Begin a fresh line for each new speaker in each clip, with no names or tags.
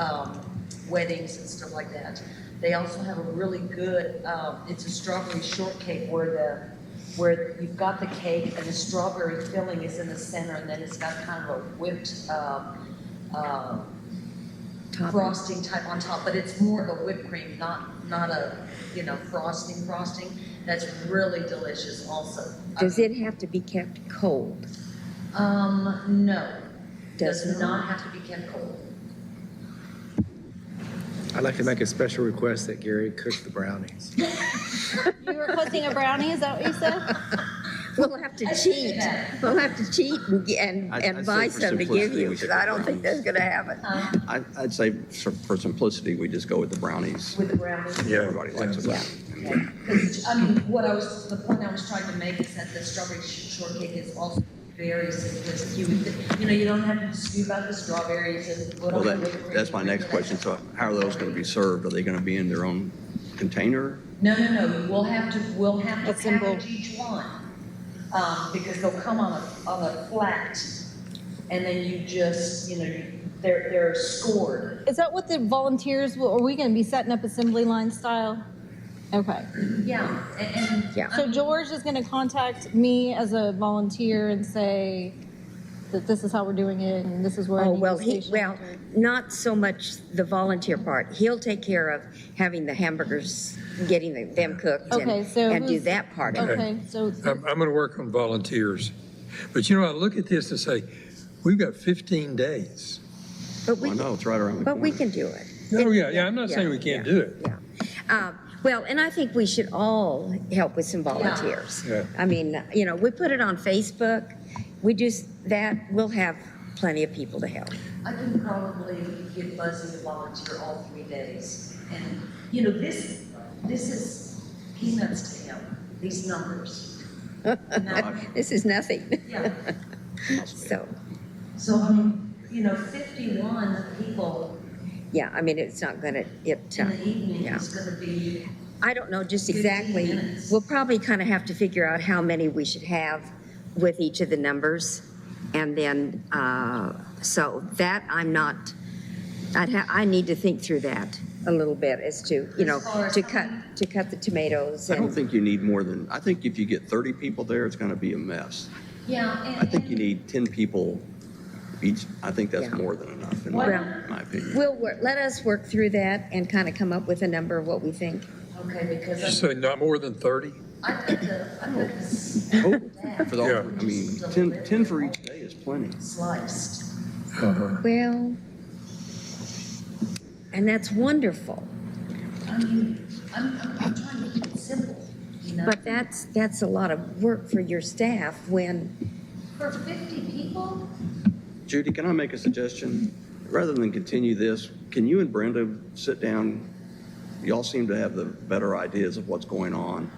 um, weddings and stuff like that. They also have a really good, um, it's a strawberry shortcake where the, where you've got the cake and the strawberry filling is in the center and then it's got kind of a whipped, um, uh, frosting type on top, but it's more of a whipped cream, not, not a, you know, frosting, frosting. That's really delicious also.
Does it have to be kept cold?
Um, no.
Does
Does
not.
not have to be kept cold.
I'd like to make a special request that Gary cook the brownies.
You were requesting a brownie, is that what you said?
We'll have to
I see
cheat.
that.
We'll have to cheat and, ge- and,
I-
and
I'd
buy
say for
some to give
simplicity,
you,
we should
because I
go
don't think that's gonna happen.
Uh,
Um,
I- I'd say for for simplicity, we just go with the brownies.
with the brownies.
Everybody likes
Yeah.
it.
Because, I mean, what I was, the point I was trying to make is that the strawberry sh- shortcake is also very simplistic. You, would- you know, you don't have to dispute about the strawberries and what
Well,
all the whipped
that,
cream
that's my
and
next
that.
question. So how are those going to be served? Are they going to be in their own container?
No, no, no, we'll have to, we'll have
That's
to
simple.
package each one, um, because they'll come on a, on a flat, and then you just, you know, you- they're, they're scored.
Is that what the volunteers, will- are we gonna be setting up assembly line style? Okay,
Yeah, and, and.
Yeah.
so George is gonna contact me as a volunteer and say that this is how we're doing it and this is where I
Oh,
need the
well, he,
station.
well, not so much the volunteer part. He'll take care of having the hamburgers, getting the- them cooked and,
Okay, so
and do
who's-
that part of it.
Okay, so,
I'm, I'm going to work on volunteers. But you know, I look at this and say, we've got 15 days.
But
Well,
we,
no, it's right around the
but we
corner.
can do it.
Oh, yeah, yeah, I'm not saying we can't do it.
Yeah. Uh, Well, and I think we should all help with some volunteers.
Yeah.
I mean, you know, we put it on Facebook, we do s- that, we'll have plenty of people to help.
I can probably get Buzzy to volunteer all three days. And, you know, this, this is peanuts to him, these numbers. And that-
This is nothing,
Yeah,
so,
so, I mean, you know, fifty-one people
yeah, I mean, it's not gonna, it, uh,
in the evening
yeah.
is gonna be,
I don't know just
15
exactly,
minutes.
we'll probably kind of have to figure out how many we should have with each of the numbers. And then, uh, so that I'm not, I'd ha, I need to think through that a little bit as to, you know,
As far as
to
how
cut,
many?
to cut the tomatoes
I don't
and,
think you need more than, I think if you get 30 people there, it's going to be a mess.
yeah, and.
I think you need 10 people each. I think that's
Yeah.
more than enough, in
Well-
my my opinion.
we'll, wor- let us work through that and kind of come up with a number of what we think.
Okay,
You
because
say not more than 30?
I, I think the, I think it's
For the,
Yeah.
I mean, 10 10 for each day is plenty.
sliced.
Well, and that's wonderful,
I mean, I'm, I'm, I'm trying to keep it simple, you know?
but that's, that's a lot of work for your staff when
For fifty people?
Judy, can I make a suggestion? Rather than continue this, can you and Brenda sit down? Y'all seem to have the better ideas of what's going on.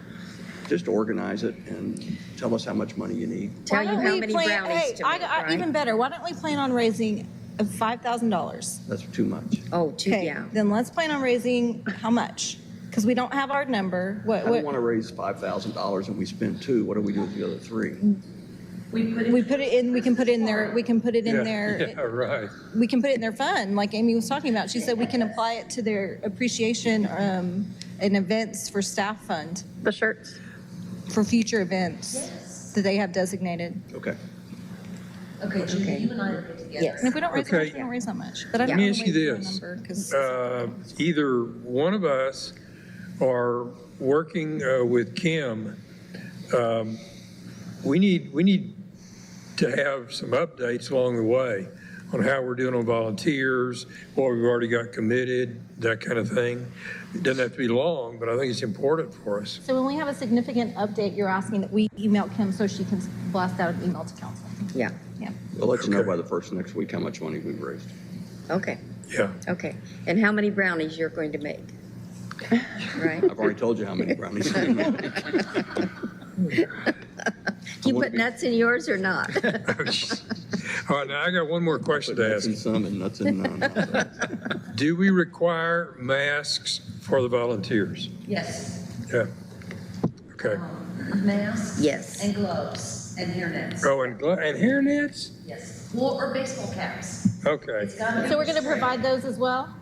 Just organize it and tell us how much money you need.
tell
Why
you
don't
how
we
many
plan-
brownies
hey,
to
I-
make,
I- Even
right?
better, why don't we plan on raising five thousand dollars?
That's too much.
Oh, two,
Okay,
yeah.
Then let's plan on raising how much? Because we don't have our number,
I
what,
don't want
what,
to raise $5,000 and we spend two. What do we do with the other three?
We put it.
we put it in, we can put it in there, we can put it
Yeah,
in there.
Yeah, right.
we can put it in their fund, like Amy was talking about. She said we can apply it to their appreciation um, and events for staff fund
the shirts.
for future events that they have designated.
Okay.
Okay, Judy,
Okay.
you and I are good together.
Yes.
And if we don't raise
Okay.
much, we don't raise that much. But I
Let
don't
me
wanna
ask you
wait for a
this.
number 'cause-
Uh, Either one of us or working uh, with Kim, um, we need, we need to have some updates along the way on how we're doing on volunteers, what we've already got committed, that kind of thing. It doesn't have to be long, but I think it's important for us.
so when we have a significant update, you're asking that we email Kim so she can blast out an email to council.
Yeah,
Yeah.
We'll let you know
Okay.
by the first next week how much money we've raised.
okay,
Yeah.
okay. And how many brownies you're going to make? Right?
I've already told you how many brownies. we made.
Do you
wanna
put
be-
nuts in yours or not?
All right, now I got one more question to
Nuts
ask.
in some and nuts in none.
Do we require masks for the volunteers?
Yes.
Yeah. Okay.
Um, Masks.
Yes.
And gloves and hair nets.
Oh, and glo- and hair nets?
Yes. Or, or baseball caps.
Okay.
It's gotta be
So we're going to
restricted.
provide those as well?